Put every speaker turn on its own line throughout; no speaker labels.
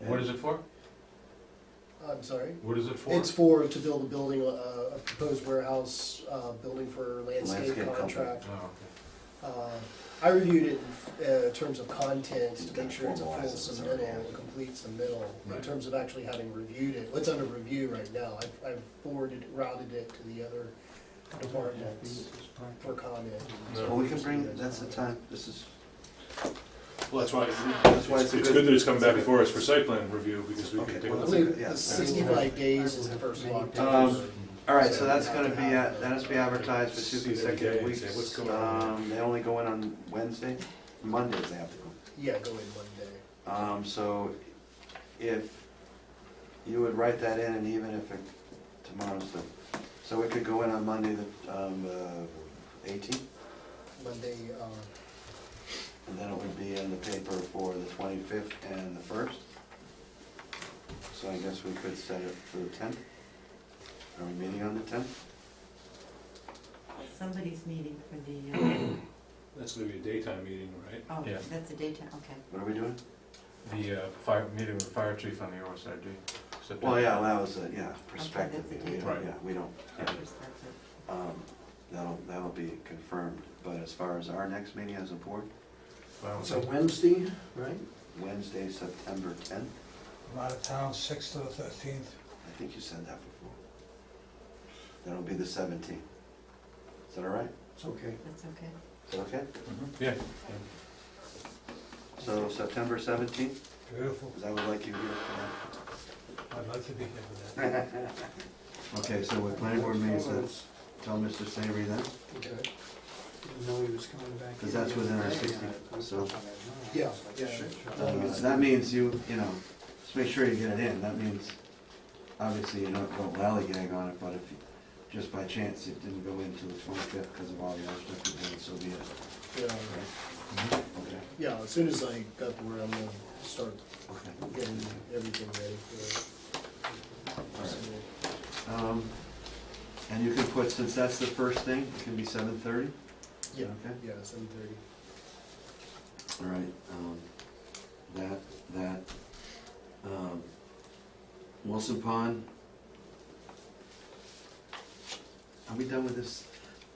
What is it for?
Uh, I'm sorry.
What is it for?
It's for, to build a building, uh, a proposed warehouse, uh, building for landscape
Landscape company.
contract.
Oh, okay.
Uh, I reviewed it in, uh, terms of content to
Gotta
make sure it's a full
formalize it, so yeah.
submittal, a complete submittal. In
Right.
terms of actually having reviewed it, what's under review right now, I've, I've forwarded, routed it to the other departments for comment.
No.
Well, we can bring, that's the time, this is,
Well, that's why,
that's why
It's
it's a
it's good that it's coming back
it's a
before us for site plan review, because we
Okay,
can take a
well,
I
look.
that's
at it.
believe
yeah,
the
that's-
sixty-five days is the first of October.
Um, All right, so that's gonna be, at- that has to be advertised for two
See it every day
consecutive
and say, "What's
weeks.
going on?"
Um, They only go in on Wednesday, Mondays they have to go.
Yeah, go in one day.
Um, so if you would write that in and even if it, tomorrow's the, so it could go in on Monday, the, um, uh, eighteenth?
Monday, uh,
And then it would be in the paper for the twenty-fifth and the first. So I guess we could set it for the tenth. Are we meeting on the tenth?
Somebody's meeting for the, uh,
That's gonna be a daytime meeting, right?
oh,
Yeah.
that's a daytime, okay.
What are we doing?
The uh, fire, meeting with the fire chief on the OSRD. September.
Well, Oh, yeah, well, that was, a yeah, perspective.
that's a
We don't-
date. Right.
Yeah, we don't,
Yeah.
Perspective.
um, that'll, that'll be confirmed. But as far as our next meeting as a board,
Well,
It's a Wednesday, right?
Wednesday, September tenth,
I'm out of town, sixth to the thirteenth.
I think you said that before. That'll be the seventeenth. Is that all right?
It's okay.
That's okay.
Is that okay?
Mhm. Yeah,
So September seventeenth,
Beautiful.
because I would like you here for that.
I'd like to be here for that.
Okay, so with planning board meetings, that's, tell Mr. Savory then,
Okay. Didn't know he was coming back.
because that's within our sixty, so.
Yeah, yeah.
uh, That means you, you know, just make sure you get it in, that means, obviously, you don't go lallygag on it, but if, you- just by chance, it didn't go into the twenty-fifth because of all the other stuff you did, so be it.
yeah,
Okay,
yeah, as soon as I got the word, I'm gonna start
okay.
getting everything ready for
All
it.
right. Um, And you can put, since that's the first thing, it can be seven thirty?
Yeah,
Okay.
yeah, seven thirty.
All right, um, that, that, um, Wilson Pond. Are we done with this?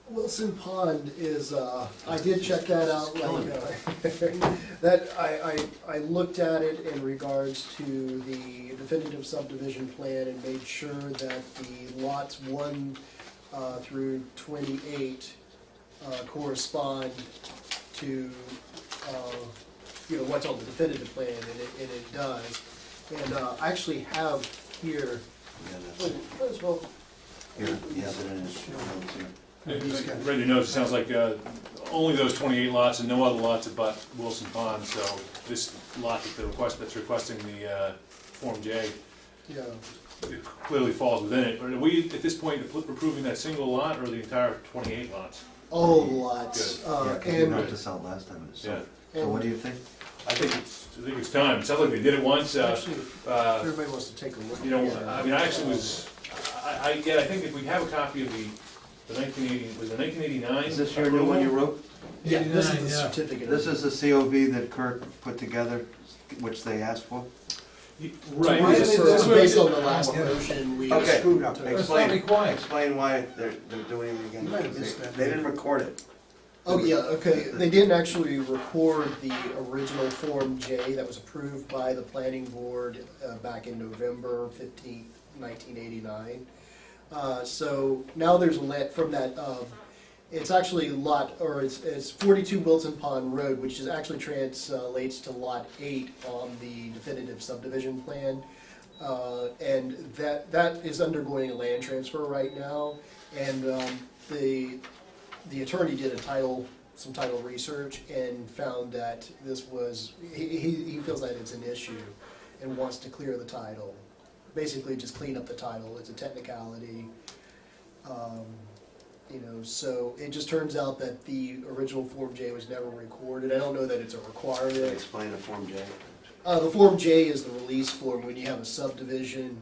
Wilson Pond is, uh, I did check that out,
Killing
like, uh, that, I, I, I looked at it in regards to the definitive subdivision plan and made sure that the lots one, uh, through twenty-eight, uh, correspond to, uh, you know, what's on the definitive plan, and it, and it does. And, uh, I actually have here,
Yeah, that's
oh,
it.
might as well
Here, yeah, but it is, that's it.
I- I Read your notes, it sounds like uh, only those 28 lots and no other lots abut Wilson Pond, so this lot that the request, that's requesting the uh, Form J
Yeah,
it clearly falls within it. But are we, at this point, approving that single lot or the entire 28 lots?
all lots,
Yeah,
uh,
'cause you knocked
and,
us out last time,
Yeah.
so, so what do you think?
I think it's, I think it's time. It sounds like we did it once. uh,
actually,
uh,
everybody wants to take a look.
You know,
at it.
I mean, I actually was, I, I, yeah, I think if we have a copy of the, the nineteen eighty, was it nineteen eighty-nine?
Is this your new one you wrote?
Yeah, this is the
89, yeah.
certificate.
This is the COV that Kirk put together, which they asked for?
Right.
Right,
this
this
is-
is based on the last
Yeah.
motion we.
Okay.
Screwed up.
Explain.
It's not required.
Explain why they're, they're doing it again.
You might have missed that.
They didn't record it.
Oh, yeah, okay, they didn't actually record the original Form J that was approved by the planning board uh, back in November fifteenth, nineteen eighty-nine. Uh, so now there's a let from that, um, it's actually lot, or it's, it's forty-two Wilson Pond Road, which is actually translates to lot eight on the definitive subdivision plan. Uh, and that, that is undergoing a land transfer right now, and, um, the, the attorney did a title, some title research and found that this was, he, he he feels that it's an issue and wants to clear the title. Basically, just clean up the title, it's a technicality. Um, You know, so it just turns out that the original Form J was never recorded, I don't know that it's a requirement.
Explain the Form J.
Uh, the Form J is the release form when you have a subdivision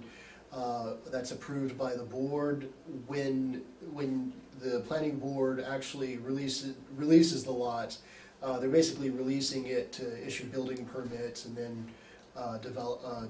uh, that's approved by the board. When, when the planning board actually releases, releases the lot, uh, they're basically releasing it to issue building permits and then uh, develop, uh,